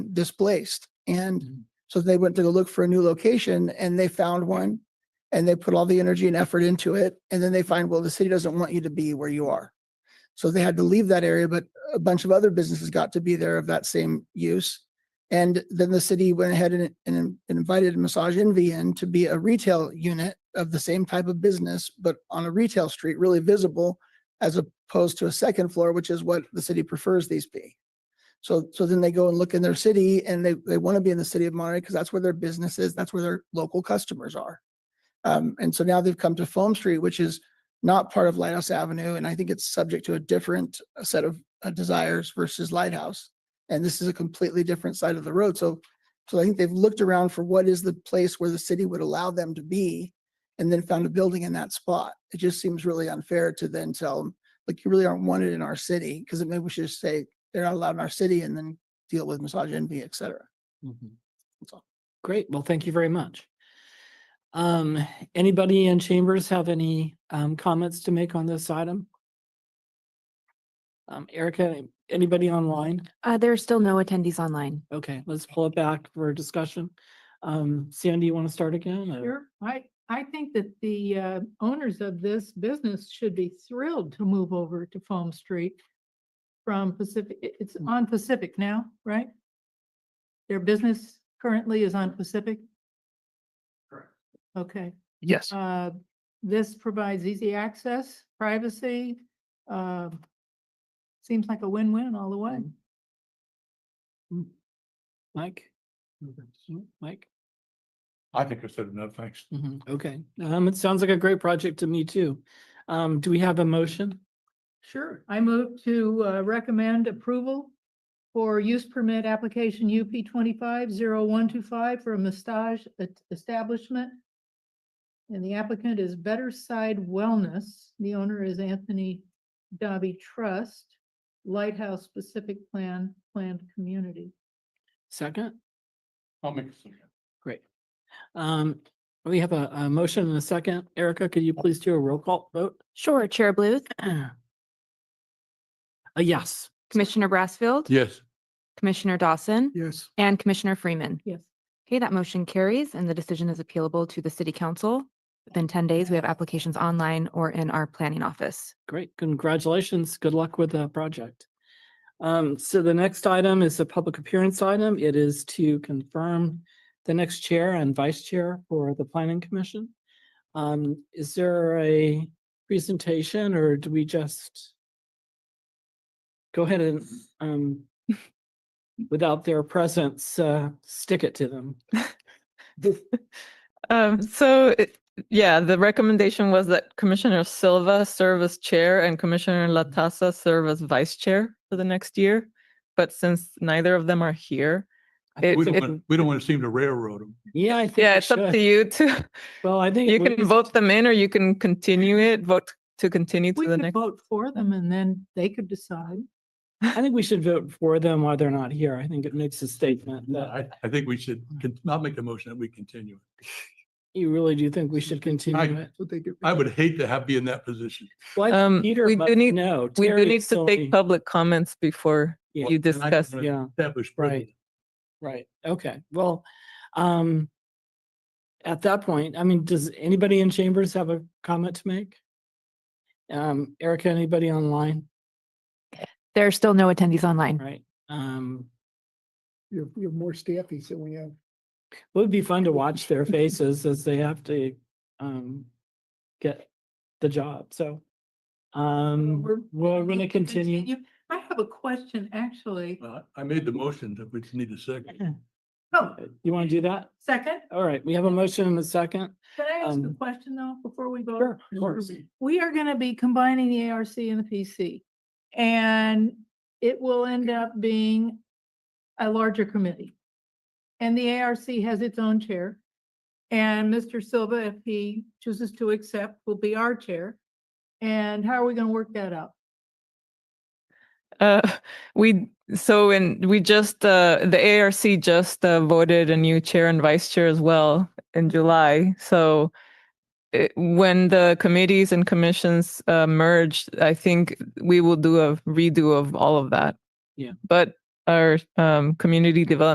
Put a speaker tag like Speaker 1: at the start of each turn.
Speaker 1: displaced. And so they went to go look for a new location and they found one and they put all the energy and effort into it. And then they find, well, the city doesn't want you to be where you are. So they had to leave that area, but a bunch of other businesses got to be there of that same use. And then the city went ahead and, and invited Massage Envy in to be a retail unit of the same type of business, but on a retail street, really visible as opposed to a second floor, which is what the city prefers these be. So, so then they go and look in their city and they, they want to be in the city of Monterey because that's where their business is. That's where their local customers are. Um, and so now they've come to Foam Street, which is not part of Lighthouse Avenue. And I think it's subject to a different uh, set of uh, desires versus Lighthouse. And this is a completely different side of the road. So, so I think they've looked around for what is the place where the city would allow them to be and then found a building in that spot. It just seems really unfair to then tell them, like, you really aren't wanted in our city because maybe we should just say, they're not allowed in our city and then deal with massage envy, et cetera.
Speaker 2: Mm-hmm.
Speaker 3: Mhm.
Speaker 1: That's all.
Speaker 3: Great. Well, thank you very much. Um, anybody in chambers have any um comments to make on this item? Um, Erica, anybody online?
Speaker 4: Uh, there are still no attendees online.
Speaker 3: Okay, let's pull it back for discussion. Um, Sandy, you want to start again? or-
Speaker 5: Sure, I, I think that the uh, owners of this business should be thrilled to move over to Foam Street from Pacific, it- it's on Pacific now, right? Their business currently is on Pacific? Correct. Okay.
Speaker 1: Yes.
Speaker 5: Uh, This provides easy access, privacy. uh, Seems like a win-win all the way.
Speaker 3: Mike? Mm, Mike?
Speaker 6: I think I said enough, thanks.
Speaker 3: Mhm, Okay, um, it sounds like a great project to me too. Um, do we have a motion?
Speaker 5: Sure. I move to uh, recommend approval for use permit application UP twenty-five zero one two five for a massage et- establishment. And the applicant is Better Side Wellness. The owner is Anthony Dobby Trust, Lighthouse Pacific Plan Planned Community.
Speaker 3: Second?
Speaker 6: I'll make a suggestion.
Speaker 3: Um, we have a, a motion and a second. Erica, could you please do a roll call vote?
Speaker 4: Sure, Chair Bluth,
Speaker 3: A Uh, yes.
Speaker 4: Commissioner Brassfield,
Speaker 6: Yes.
Speaker 4: Commissioner Dawson,
Speaker 6: Yes.
Speaker 4: and Commissioner Freeman.
Speaker 5: Yes.
Speaker 4: Okay, that motion carries and the decision is appealable to the city council. Within ten days, we have applications online or in our planning office.
Speaker 3: Great. Congratulations. Good luck with the project. Um, so the next item is a public appearance item. It is to confirm the next chair and vice chair for the planning commission. Um, is there a presentation or do we just go ahead and, um, without their presence, uh, stick it to them?
Speaker 2: Um, so, it- yeah, the recommendation was that Commissioner Silva serve as chair and Commissioner Latassa serve as vice chair for the next year. But since neither of them are here, it,
Speaker 6: We don't
Speaker 2: it-
Speaker 6: want, we don't want to seem to railroad them.
Speaker 3: Yeah, I think.
Speaker 2: yeah,
Speaker 3: we
Speaker 2: it's up
Speaker 3: should.
Speaker 2: to you to,
Speaker 3: Well, I think.
Speaker 2: you
Speaker 3: we-
Speaker 2: can vote them in or you can continue it, vote to continue
Speaker 5: We
Speaker 2: to the
Speaker 5: could
Speaker 2: next.
Speaker 5: vote for them and then they could decide.
Speaker 3: I think we should vote for them while they're not here. I think it makes a statement that
Speaker 6: I, I think we should con- not make the motion that we continue.
Speaker 3: you really do think we should continue it.
Speaker 6: I would hate to have, be in that position.
Speaker 3: Well, I
Speaker 2: Um,
Speaker 3: think Peter
Speaker 2: we do
Speaker 3: must
Speaker 2: need-
Speaker 3: know.
Speaker 2: We do
Speaker 3: Terry's
Speaker 2: need to
Speaker 3: still
Speaker 2: take
Speaker 3: the-
Speaker 2: public comments before
Speaker 3: Yeah.
Speaker 6: And
Speaker 2: you
Speaker 6: I don't
Speaker 2: discuss.
Speaker 6: wanna
Speaker 3: Yeah,
Speaker 6: Establish.
Speaker 3: right.
Speaker 6: precedent.
Speaker 3: Right. Okay. Well, um, at that point, I mean, does anybody in chambers have a comment to make? Um, Erica, anybody online?
Speaker 4: There are still no attendees online.
Speaker 3: Right. Um,
Speaker 1: You have, you have more staffies than we have.
Speaker 3: it would be fun to watch their faces as they have to, um, get the job. So, um,
Speaker 5: we're-
Speaker 3: we're going to continue.
Speaker 5: I have a question, actually.
Speaker 6: Uh, I made the motion that we just need a second.
Speaker 5: Oh,
Speaker 3: You want to do that?
Speaker 5: second,
Speaker 3: All right, we have a motion and a second.
Speaker 5: can I ask a
Speaker 3: Um,
Speaker 5: question though, before we vote?
Speaker 3: Of course.
Speaker 5: we are gonna be combining the ARC and the PC. And it will end up being a larger committee. And the ARC has its own chair. And Mr. Silva, if he chooses to accept, will be our chair. And how are we gonna work that out?
Speaker 2: Uh, we, so in, we just, uh, the ARC just uh, voted a new chair and vice chair as well in July. So it, when the committees and commissions uh, merge, I think we will do a redo of all of that.
Speaker 3: Yeah.
Speaker 2: But our um, community development